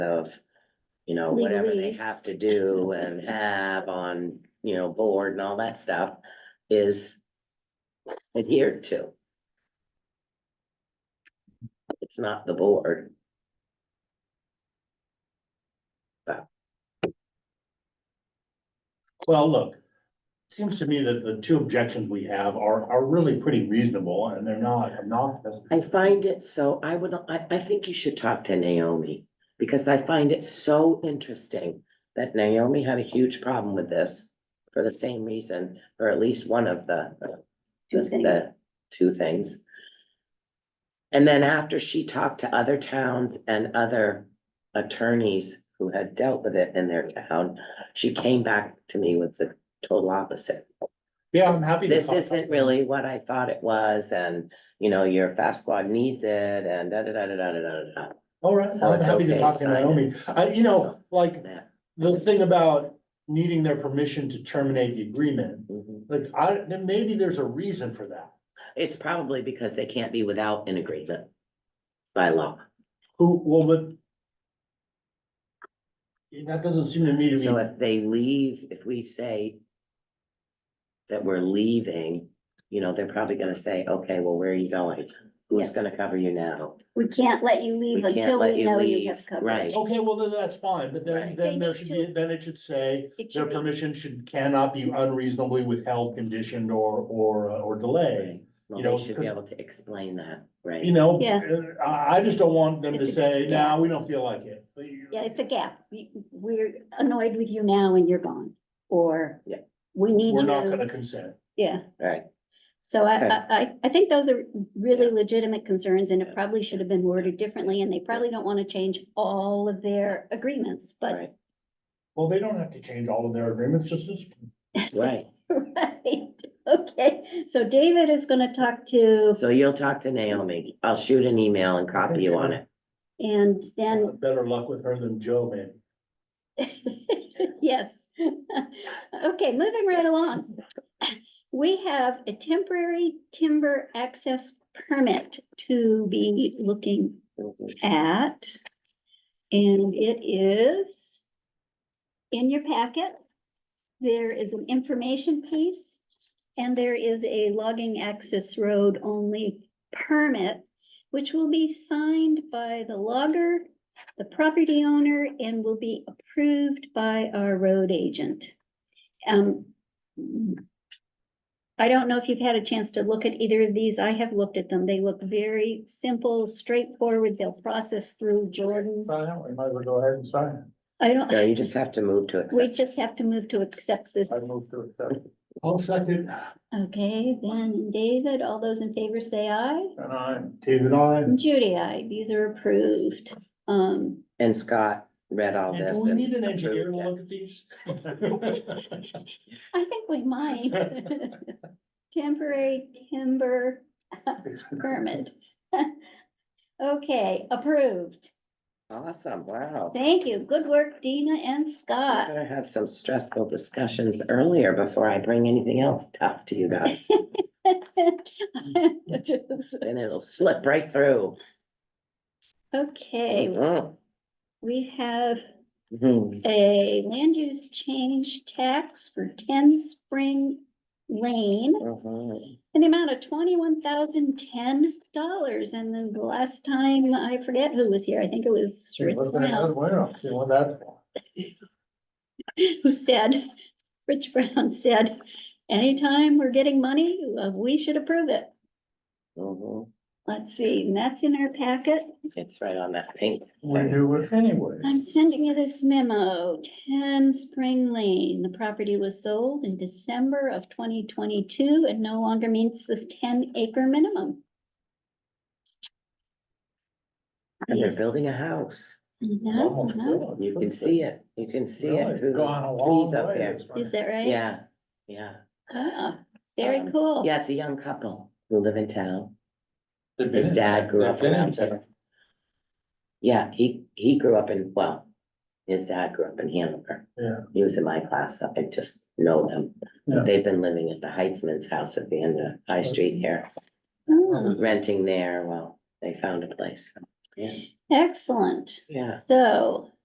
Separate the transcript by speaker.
Speaker 1: of, you know, whatever they
Speaker 2: Legalese.
Speaker 1: have to do and have on, you know, board and all that stuff is adhered to. It's not the board.
Speaker 3: Well, look, seems to me that the two objections we have are, are really pretty reasonable and they're not, not.
Speaker 1: I find it so, I would, I, I think you should talk to Naomi, because I find it so interesting that Naomi had a huge problem with this for the same reason, or at least one of the,
Speaker 2: Two
Speaker 1: just
Speaker 2: things.
Speaker 1: the two things. And then after she talked to other towns and other attorneys who had dealt with it in their town, she came back to me with the total opposite
Speaker 3: Yeah, I'm happy. to
Speaker 1: this
Speaker 3: talk-
Speaker 1: isn't really what I thought it was, and, you know, your fast squad needs it, and da, da, da, da, da, da, da, da,
Speaker 3: All right,
Speaker 1: So
Speaker 3: I'm
Speaker 1: it's
Speaker 3: happy to
Speaker 1: okay,
Speaker 3: talk to
Speaker 1: sign it.
Speaker 3: Naomi. I, you know, like,
Speaker 1: da.
Speaker 3: the thing about needing their permission to terminate the agreement,
Speaker 1: Mhm.
Speaker 3: like, I, then maybe there's a reason for that.
Speaker 1: It's probably because they can't be without an agreement by law,
Speaker 3: Who, well, but. That doesn't seem to me to
Speaker 1: so
Speaker 3: be,
Speaker 1: if they leave, if we say that we're leaving, you know, they're probably gonna say, okay, well, where are you going? Who's
Speaker 2: Yeah.
Speaker 1: gonna cover you now?
Speaker 2: We can't let you leave
Speaker 1: We can't
Speaker 2: until
Speaker 1: let
Speaker 2: we
Speaker 1: you
Speaker 2: know you
Speaker 1: leave,
Speaker 2: have coverage.
Speaker 1: right.
Speaker 3: okay, well, then that's fine, but then,
Speaker 1: Right.
Speaker 2: They
Speaker 3: then there
Speaker 2: need
Speaker 3: should
Speaker 2: to-
Speaker 3: be, then it should say.
Speaker 2: It
Speaker 3: Their
Speaker 2: should be-
Speaker 3: permission should, cannot be unreasonably withheld, conditioned, or, or, uh, or delayed.
Speaker 1: Well,
Speaker 3: You know,
Speaker 1: they should be
Speaker 3: 'cause-
Speaker 1: able to explain that, right?
Speaker 3: You know,
Speaker 2: Yeah.
Speaker 3: uh, I, I just don't want them to
Speaker 2: It's a-
Speaker 3: say,
Speaker 2: yeah.
Speaker 3: nah, we don't feel like it.
Speaker 2: Yeah, it's a gap. We- We're annoyed with you now and you're gone, or
Speaker 1: Yeah.
Speaker 2: we need
Speaker 3: We're not gonna
Speaker 2: you.
Speaker 3: consent.
Speaker 2: Yeah,
Speaker 1: Right,
Speaker 2: so I,
Speaker 1: Okay.
Speaker 2: I, I- I think those are really
Speaker 1: Yeah.
Speaker 2: legitimate concerns and
Speaker 1: Yeah.
Speaker 2: it probably should have been worded differently and they probably don't want to change all of their agreements, but.
Speaker 1: right,
Speaker 3: Well, they don't have to change all of their agreements, just this.
Speaker 1: right,
Speaker 2: Right, okay, so David is gonna talk to,
Speaker 1: so you'll talk to Naomi, I'll shoot an email and copy you on it.
Speaker 2: and then
Speaker 3: Better luck with her than Joe, man.
Speaker 2: Yes. Okay, moving right along. We have a temporary timber access permit to be looking at. And it is in your packet. There is an information piece and there is a logging access road only permit, which will be signed by the logger, the property owner, and will be approved by our road agent. Um, I don't know if you've had a chance to look at either of these. I have looked at them. They look very simple, straightforward. They'll process through Jordan.
Speaker 3: Sign out, we might as well go ahead and sign
Speaker 2: I
Speaker 1: No,
Speaker 2: don't,
Speaker 1: you just have to move to accept.
Speaker 2: we just have to move to accept this.
Speaker 3: move to accept. I'll second,
Speaker 2: Okay, Ben and David, all those in favor say aye.
Speaker 3: and I'm David, I.
Speaker 2: And Judy, aye. These are approved. Um,
Speaker 1: And Scott read all
Speaker 3: And
Speaker 1: this.
Speaker 3: do we
Speaker 1: and
Speaker 3: need an engineer to
Speaker 1: approved it.
Speaker 3: look at these?
Speaker 2: I think we might. Temporary timber permit. Okay, approved.
Speaker 1: Awesome, wow.
Speaker 2: Thank you. Good work, Dina and
Speaker 1: We're
Speaker 2: Scott.
Speaker 1: gonna have some stressful discussions earlier before I bring anything else tough to you guys, and it'll slip right through.
Speaker 2: Okay,
Speaker 1: Mhm.
Speaker 2: we have
Speaker 1: Mhm.
Speaker 2: a land use change tax for ten Spring Lane
Speaker 1: Mhm.
Speaker 2: in the amount of twenty-one thousand ten dollars. And then the last time, I forget who was here, I think it was Rich Brown, who said, Rich Brown said, anytime we're getting money, uh, we should approve it.
Speaker 1: Mhm.
Speaker 2: Let's see, and that's in our packet.
Speaker 1: It's right on that pink.
Speaker 3: We
Speaker 1: thing.
Speaker 3: do it anyways.
Speaker 2: I'm sending you this memo, ten Spring Lane. The property was sold in December of twenty twenty-two and no longer meets this ten acre minimum.
Speaker 1: And they're building a house.
Speaker 3: Oh
Speaker 2: No, no,
Speaker 1: You can see it, you can see it through
Speaker 3: Gone a
Speaker 1: the
Speaker 3: long
Speaker 1: trees up
Speaker 3: way.
Speaker 1: there.
Speaker 2: is that right?
Speaker 1: Yeah, yeah,
Speaker 2: Ah, very
Speaker 1: Um,
Speaker 2: cool.
Speaker 1: yeah, it's a young couple who live in town. His dad grew up around there. Yeah, he, he grew up in, well, his dad grew up in Hanover.
Speaker 3: Yeah.
Speaker 1: He was in my class, so I just know them.
Speaker 3: Yeah.
Speaker 1: They've been living at the Heitzman's house at the end of High Street here,
Speaker 2: Oh,
Speaker 1: renting there while they found a place.
Speaker 2: Yeah.
Speaker 1: Excellent.
Speaker 2: Yeah.
Speaker 1: So